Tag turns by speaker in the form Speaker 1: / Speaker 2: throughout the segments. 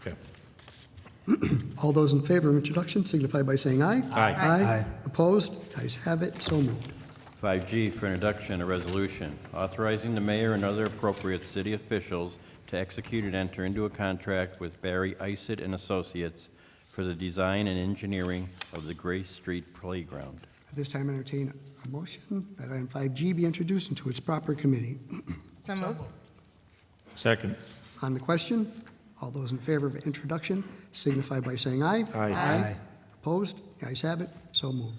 Speaker 1: Okay.
Speaker 2: All those in favor of introduction signify by saying aye.
Speaker 1: Aye.
Speaker 2: Aye. Opposed? Ayes have it, so moved.
Speaker 3: 5G for introduction, a resolution authorizing the mayor and other appropriate city officials to execute and enter into a contract with Barry Isid and Associates for the design and engineering of the Gray Street Playground.
Speaker 2: At this time, entertain a motion that item 5G be introduced into its proper committee.
Speaker 4: So moved.
Speaker 1: Second.
Speaker 2: On the question, all those in favor of introduction signify by saying aye.
Speaker 1: Aye.
Speaker 2: Aye. Opposed? Ayes have it, so moved.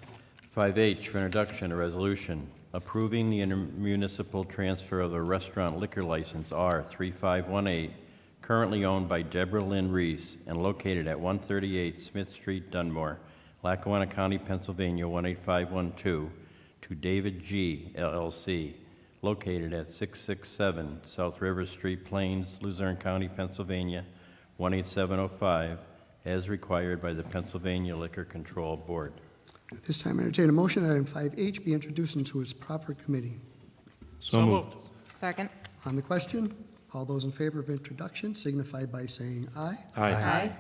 Speaker 3: 5H for introduction, a resolution approving the intermunicipal transfer of the restaurant liquor license R3518, currently owned by Deborah Lynn Reese and located at 138 Smith Street, Dunmore, Lackawanna County, Pennsylvania 18512, to David G. LLC, located at 667 South River Street, Plains, Luzerne County, Pennsylvania 18705, as required by the Pennsylvania Liquor Control Board.
Speaker 2: At this time, entertain a motion that item 5H be introduced into its proper committee.
Speaker 1: So moved.
Speaker 4: Second.
Speaker 2: On the question, all those in favor of introduction signify by saying aye.
Speaker 1: Aye.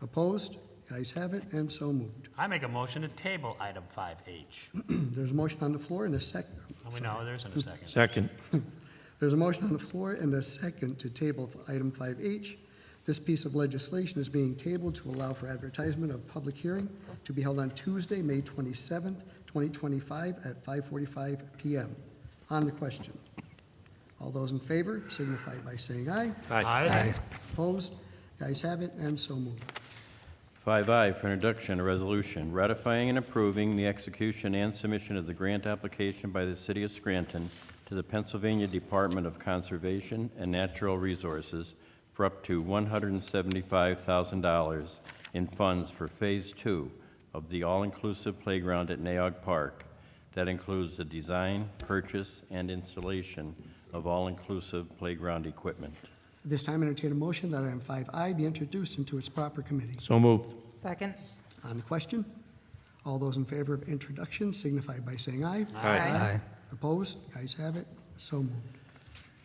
Speaker 2: Opposed? Ayes have it, and so moved.
Speaker 5: I make a motion to table item 5H.
Speaker 2: There's a motion on the floor and a sec,
Speaker 5: We know there isn't a second.
Speaker 1: Second.
Speaker 2: there's a motion on the floor and a second to table item 5H. This piece of legislation is being tabled to allow for advertisement of public hearing to be held on Tuesday, May 27th, 2025, at 5:45 PM. On the question, all those in favor signify by saying aye.
Speaker 5: Aye.
Speaker 2: Opposed? The ayes have it, and so moved.
Speaker 3: 5I for introduction, a resolution ratifying and approving the execution and submission of the grant application by the City of Scranton to the Pennsylvania Department of Conservation and Natural Resources for up to $175,000 in funds for Phase 2 of the all-inclusive playground at Naog Park. That includes the design, purchase, and installation of all-inclusive playground equipment.
Speaker 2: At this time, entertain a motion that item 5I be introduced into its proper committee.
Speaker 1: So moved.
Speaker 4: Second.
Speaker 2: On the question, all those in favor of introduction signify by saying aye.
Speaker 4: Aye.
Speaker 2: Opposed? The ayes have it, so moved.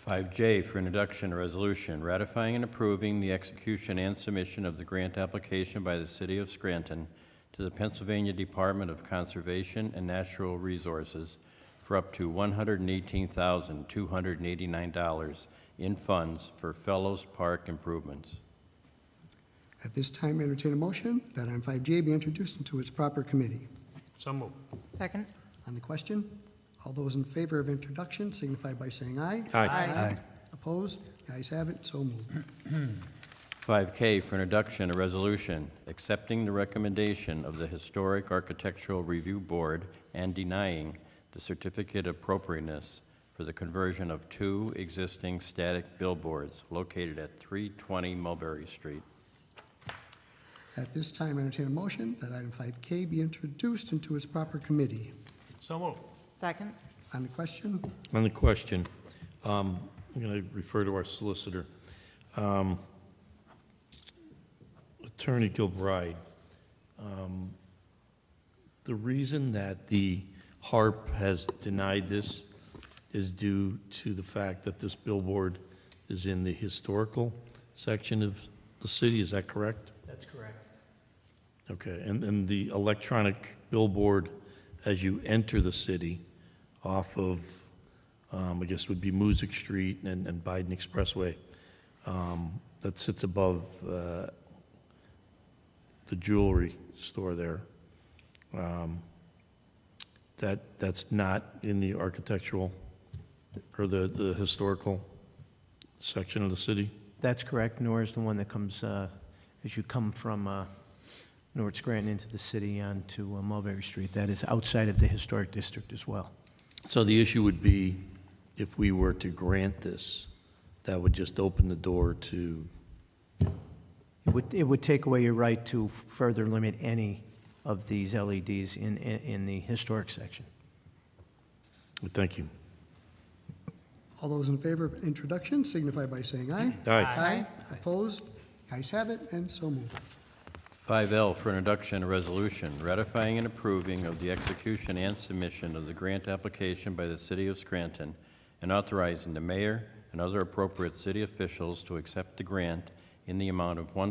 Speaker 3: 5J for introduction, a resolution ratifying and approving the execution and submission of the grant application by the City of Scranton to the Pennsylvania Department of Conservation and Natural Resources for up to $118,289 in funds for Fellows Park improvements.
Speaker 2: At this time, entertain a motion that item 5J be introduced into its proper committee.
Speaker 5: So moved.
Speaker 4: Second.
Speaker 2: On the question, all those in favor of introduction signify by saying aye. Opposed? The ayes have it, so moved.
Speaker 3: 5K for introduction, a resolution accepting the recommendation of the Historic Architectural Review Board and denying the certificate of appropriateness for the conversion of two existing static billboards located at 320 Mulberry Street.
Speaker 2: At this time, entertain a motion that item 5K be introduced into its proper committee.
Speaker 5: So moved.
Speaker 4: Second.
Speaker 2: On the question,
Speaker 1: On the question, um, I'm going to refer to our solicitor. Um, Attorney Gilbride, um, the reason that the HARP has denied this is due to the fact that this billboard is in the historical section of the city, is that correct?
Speaker 5: That's correct.
Speaker 1: Okay, and, and the electronic billboard as you enter the city off of, um, I guess would be Music Street and, and Biden Expressway, um, that sits above, uh, the jewelry store there. Um, That, that's not in the architectural or the, the historical section of the city?
Speaker 6: That's correct. Nor is the one that comes, uh, as you come from uh, North Scranton into the city onto uh, Mulberry Street. That is outside of the historic district as well.
Speaker 1: So the issue would be, if we were to grant this, that would just open the door to,
Speaker 6: It would, it would take away your right to further limit any of these LEDs in, in in the historic section.
Speaker 1: thank you.
Speaker 2: all those in favor of introduction signify by saying aye.
Speaker 1: Aye.
Speaker 2: Opposed? The ayes have it, and so moved.
Speaker 3: 5L for introduction, a resolution ratifying and approving of the execution and submission of the grant application by the City of Scranton and authorizing the mayor and other appropriate city officials to accept the grant in the amount of one.